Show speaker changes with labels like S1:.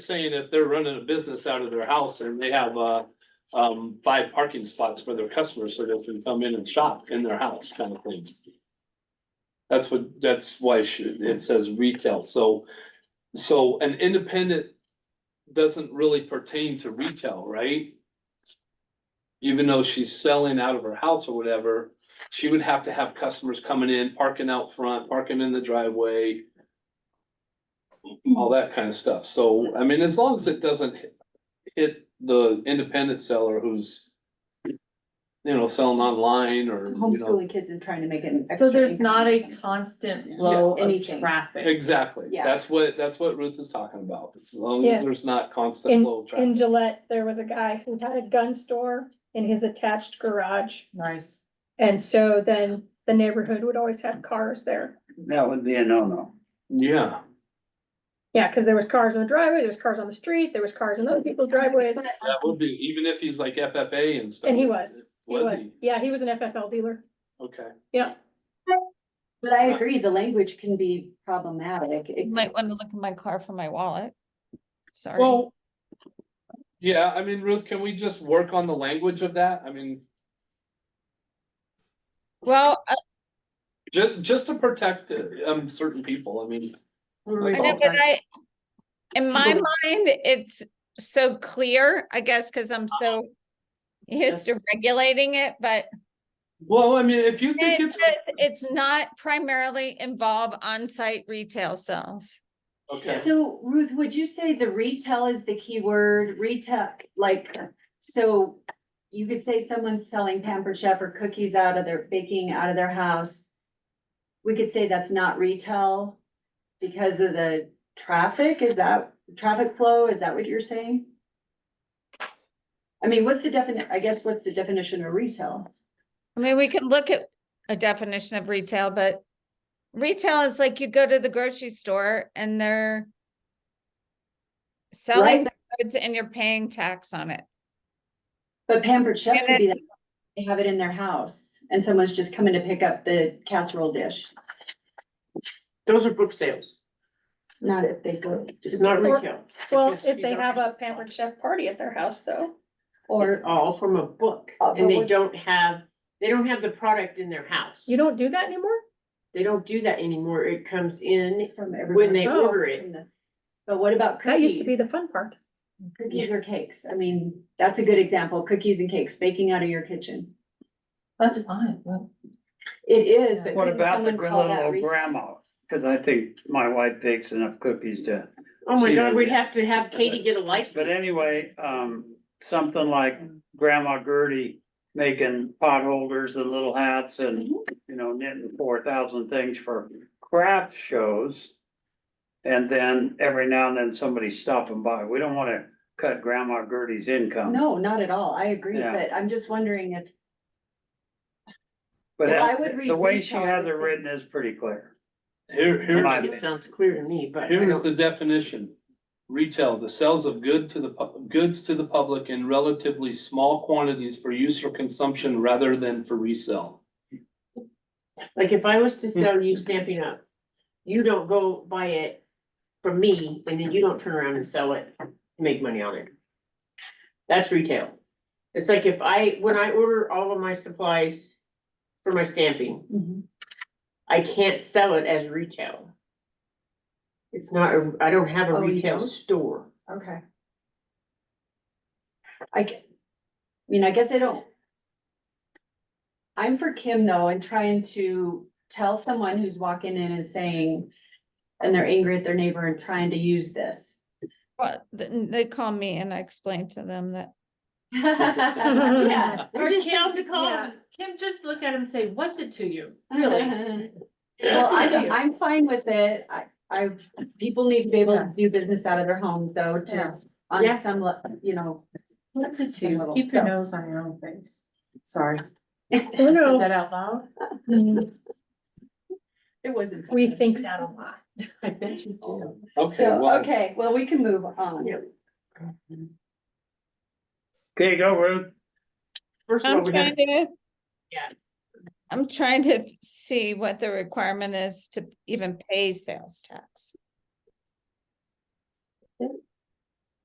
S1: saying if they're running a business out of their house and they have, uh, um, five parking spots for their customers so they can come in and shop in their house kind of thing. That's what, that's why she- it says retail. So, so an independent doesn't really pertain to retail, right? Even though she's selling out of her house or whatever, she would have to have customers coming in, parking out front, parking in the driveway all that kind of stuff. So, I mean, as long as it doesn't hit- hit the independent seller who's, you know, selling online or, you know,
S2: homeschooling kids and trying to make it. an
S3: So
S2: extra
S3: there's
S2: income
S3: not
S2: or
S3: a
S2: something.
S3: constant
S2: Yeah.
S3: flow of
S2: Anything.
S3: traffic.
S1: exactly.
S2: Yeah.
S1: That's what, that's what Ruth is talking about. As long as
S4: Yeah.
S1: there's not constant
S4: In-
S1: flow of
S4: In
S1: traffic.
S4: Gillette, there was a guy who had a gun store in his attached garage,
S3: Nice.
S4: and so then the neighborhood would always have cars there.
S5: That would be a no-no.
S1: Yeah,
S4: Yeah, cause there was cars in the driveway, there was cars on the street, there was cars in other people's driveways,
S2: But-
S1: that would be, even if he's like FFA and stuff.
S4: and he was, he
S1: Was
S4: was,
S1: he?
S4: yeah, he was an FFL dealer.
S1: Okay.
S2: But I agree, the language can be problematic. It
S6: Might
S2: could-
S6: wanna look in my car for my wallet. Sorry.
S1: Well, yeah, I mean, Ruth, can we just work on the language of that? I mean,
S6: Well, uh, I-
S1: ju- just to protect, um, certain people. I mean,
S6: I know, but I, in my mind, it's so clear, I guess, cause I'm so used to
S3: Yes.
S6: regulating it, but
S1: well, I mean, if you think
S6: it
S1: it's.
S6: says it's not primarily involve on-site retail sales.
S1: Okay.
S2: So Ruth, would you say the retail is the key word, retail, like, so you could say someone's selling Pampered Chef or cookies out of their, baking out of their house. We could say that's not retail because of the traffic, is that traffic flow, is that what you're saying? I mean, what's the definite, I guess, what's the definition of retail?
S6: I mean, we can look at a definition of retail, but retail is like you go to the grocery store and they're selling goods and you're paying tax on it.
S2: But Pampered Chef
S6: And
S2: could be,
S6: it's-
S2: that they have it in their house and someone's just coming to pick up the casserole dish,
S7: Those are book sales.
S2: not if they go. to-
S7: It's not
S4: Or-
S7: retail.
S4: Well,
S7: because
S4: if
S7: you
S4: they
S7: don't
S4: have a pampered chef party at their house though,
S7: It's
S2: Or,
S7: all from a book
S2: Uh, but
S7: and they
S2: what-
S7: don't have, they don't have the product in their house.
S4: you don't do that anymore?
S7: They don't do that anymore. It comes in
S2: from
S7: when
S2: everyone.
S7: they
S4: Oh.
S7: order it.
S2: from the- But what about cookies?
S4: That used to be the fun part.
S2: Cookies or cakes, I mean, that's a good example, cookies and cakes, baking out of your kitchen.
S3: That's fine.
S2: It is, but
S5: What
S2: couldn't
S5: about the
S2: someone call that
S5: little
S2: retail?
S5: grandma? Cause I think my wife bakes enough cookies to,
S7: Oh my
S5: See,
S7: God,
S5: and-
S7: we'd have to have Katie get a license.
S5: but anyway, um, something like Grandma Gertie making potholders and little hats and,
S2: Mm-hmm.
S5: you know, knitting four thousand things for craft shows. And then every now and then somebody stopping by. We don't wanna cut Grandma Gertie's income.
S2: No, not at all, I agree,
S5: Yeah.
S2: but I'm just wondering if,
S5: But
S2: If I
S5: that-
S2: would read
S5: the way she
S2: retail, I
S5: has
S2: would
S5: it
S2: think-
S5: written is pretty clear.
S1: Here,
S5: Right.
S1: here's,
S7: It sounds clear to me, but I
S1: here is
S7: don't,
S1: the definition. Retail, the sales of good to the, pub- goods to the public in relatively small quantities for use or consumption rather than for resale.
S7: like if I was
S2: Hmm.
S7: to sell you stamping up, you don't go buy it from me and then you don't turn around and sell it, and make money on it. That's retail. It's like if I, when I order all of my supplies for my stamping,
S4: Mm-hmm.
S7: I can't sell it as retail. It's not, a- I don't have a
S2: Oh, you
S7: retail
S2: don't?
S7: store.
S2: okay. I, g- I mean, I guess I don't. I'm for Kim though, and trying to tell someone who's walking in and saying, and they're angry at their neighbor and trying to use this.
S6: But th- they call me and I explain to them that
S2: Yeah.
S7: Or just tell them to call.
S3: Kim, Kim, just look at him and say, what's it to you?
S2: Really?
S3: What's
S2: Well,
S3: it to
S2: I'm,
S3: you?
S2: I'm fine with it. I, I, people need to be able to do business out of their homes though,
S3: Yeah.
S2: to,
S7: Yeah.
S2: on some, le- you know.
S3: What's it to
S2: Some
S3: you?
S2: little
S3: Keep your
S2: stuff.
S3: nose on your own face. Sorry. I
S4: Oh, no.
S3: said that out loud.
S4: Mm,
S2: It wasn't.
S4: We think that a lot.
S3: I bet you do.
S1: Okay,
S2: So,
S1: well,
S2: okay, well, we can move on.
S7: Yeah.
S5: Okay, go Ruth.
S7: First of all,
S6: I'm
S7: we gotta,
S6: trying to.
S7: Yeah.
S6: I'm trying to see what the requirement is to even pay sales tax.